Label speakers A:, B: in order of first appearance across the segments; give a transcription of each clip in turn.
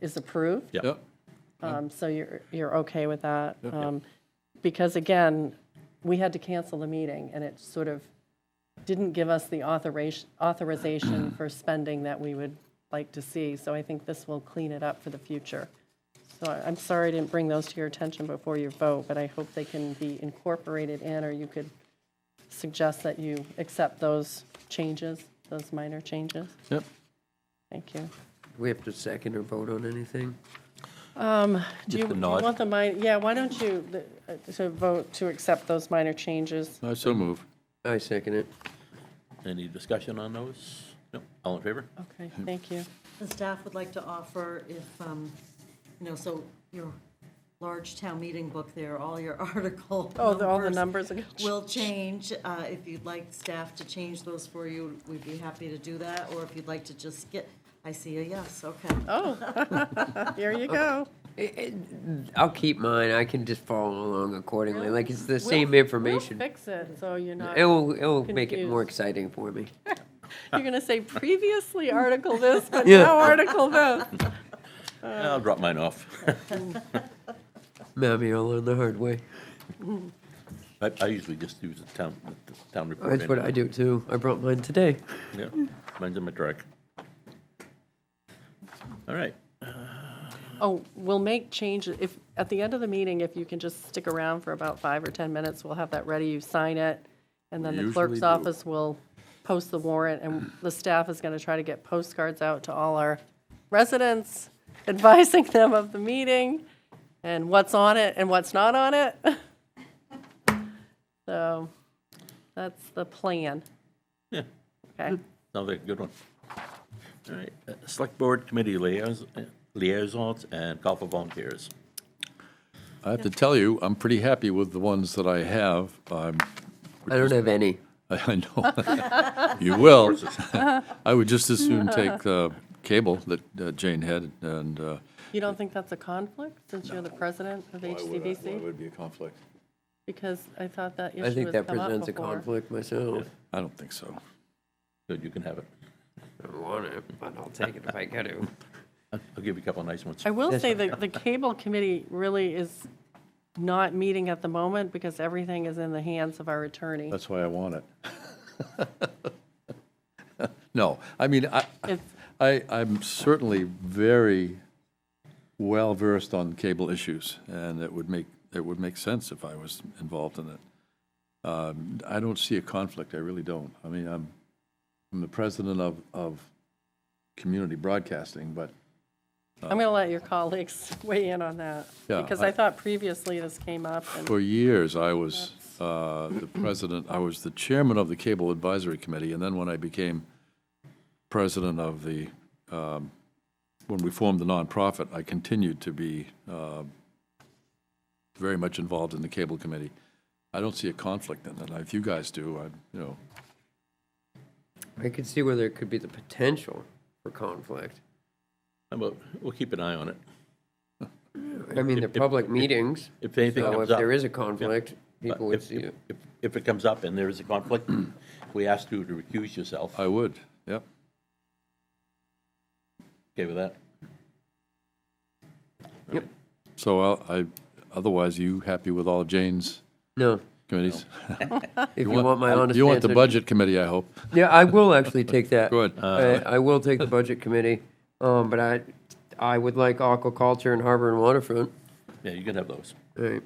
A: is approved.
B: Yeah.
C: Yep.
A: Um, So you're, you're okay with that? Um, Because again, we had to cancel the meeting, and it sort of didn't give us the authorization, authorization for spending that we would like to see. So I think this will clean it up for the future. So I- I'm sorry I didn't bring those to your attention before your vote, but I hope they can be incorporated in, or you could suggest that you accept those changes, those minor changes.
C: Yep.
A: Thank you.
D: We have to second or vote on anything?
A: Do you
B: the
A: you
B: nod.
A: want the minor, yeah, why don't you, the, uh, to vote to accept those minor changes?
C: I so move.
D: I second it.
B: Any discussion on those? No, all in favor?
D: Uh,
A: Okay, thank you.
E: The staff would like to offer if, um, you know, so your large town meeting book there, all your article
A: Oh, the- all the numbers are-
E: will change. Uh, If you'd like staff to change those for you, we'd be happy to do that, or if you'd like to just get, I see a yes, okay.
A: Here you go.
D: I'll keep mine. I can just follow along accordingly. Like, it's the same
A: We'll
D: information.
A: fix it, so you're not, you're
D: It'll, it'll make it more
A: confused.
D: exciting for me.
A: gonna say previously article this, but
D: Yeah.
A: now article this.
B: I'll drop mine off.
D: Mammy, I'll learn the hard way.
B: I, I usually just use the town, the town report.
D: That's what I do too. I brought mine today.
B: Yeah, mine's in my truck. All right,
A: Oh, we'll make changes, if, at the end of the meeting, if you can just stick around for about five or 10 minutes, we'll have that ready, you sign it, and then
B: We
A: the clerk's
B: usually do.
A: office will post the warrant, and the staff is going to try to get postcards out to all our residents, advising them of the meeting, and what's on it and what's not on it. So, that's the plan.
B: Yeah.
A: Okay,
B: another good one. All right, uh, Select Board Committee liaisons- liaisons and call for volunteers.
C: I have to tell you, I'm pretty happy with the ones that I have. I'm,
D: I don't have any.
C: I know. You will. I would just as soon take the cable that uh, Jane had and. uh,
A: you don't think that's a conflict, since you're the president of HCBC?
C: be a conflict?
A: Because I thought that issue
D: I
A: has
D: think that
A: come up
D: presents a
A: before.
D: conflict myself.
C: I don't think so.
B: Good, you can have it.
D: I don't want it, but I'll take it if I got to.
B: I'll I'll give you a couple of nice ones.
A: I will say that the cable committee really is not meeting at the moment because everything is in the hands of our attorney.
C: That's why I want it. No, I mean, I,
A: It's-
C: I, I'm certainly very well versed on cable issues, and it would make, it would make sense if I was involved in it. Um, I don't see a conflict, I really don't. I mean, I'm, I'm the president of, of community broadcasting, but
A: I'm going to let your colleagues weigh in on that.
C: Yeah,
A: Because
C: I-
A: I thought previously this came up and
C: for years, I was uh, the president, I was the chairman of the Cable Advisory Committee, and then when I became president of the, um, when we formed the nonprofit, I continued to be uh, very much involved in the Cable Committee. I don't see a conflict in that. If you guys do, I, you know,
D: I could see where there could be the potential for conflict.
B: How about- We'll keep an eye on it.
D: I mean, they're
B: If- if-
D: public
B: if-
D: meetings.
B: if anything
D: so
B: comes
D: if
B: up-
D: there is a
B: yeah.
D: conflict, people would
B: If,
D: see
B: if,
D: it.
B: if- if it comes up and there is a conflict, we ask you to recuse yourself.
C: I would, yep.
B: Okay with that?
C: So I'll- I, otherwise, you happy with all Jane's
D: No,
C: committees?
D: if you want my honest
C: You want the
D: answer-
C: Budget Committee, I hope.
D: Yeah, I will actually take that. Uh,
C: Good.
D: I, I will take the budget committee, um, but I, I would like aquaculture and harbor and waterfront.
B: Yeah, you can have those.
D: All right,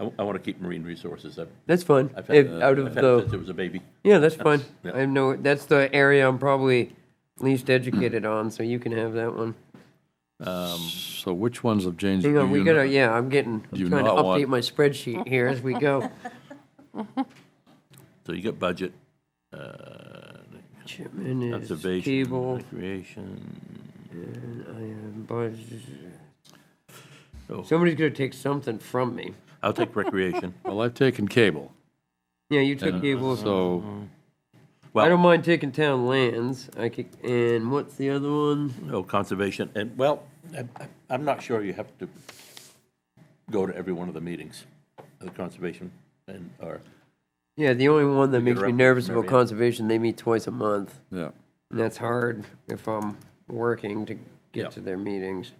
B: I, want to keep marine resources. I've,
D: that's fine.
B: I've had,
D: If,
B: uh,
D: out
B: I've
D: of
B: had since
D: the,
B: there was a baby.
D: yeah, that's fine.
B: Yeah.
D: I know, that's the area I'm probably least educated on, so you can have that one.
C: So which ones of Jane's?
D: Hang
C: do
D: on, we
C: you
D: gotta,
C: know?
D: yeah, I'm getting,
C: Do you
D: I'm trying to
C: not want-
D: update my spreadsheet here as we go.
B: So you got budget, uh,
D: Chipman is
B: conservation,
D: cable,
B: recreation.
D: I am budget.
B: Oh.
D: Somebody's gonna take something from me.
B: I'll take recreation.
C: Well, I've taken cable.
D: Yeah, you took cable.
C: So,
B: Well,
D: I don't mind taking town lands. I could, and what's the other one?
B: Oh, conservation, and, well, I- I- I'm not sure you have to go to every one of the meetings, the conservation, and, or,
D: Yeah, the only one that makes me
B: reference
D: nervous
B: from
D: about
B: every-
D: conservation, they meet twice a month.
C: yeah,
D: And that's hard if I'm working to get
B: Yeah.
D: to their meetings.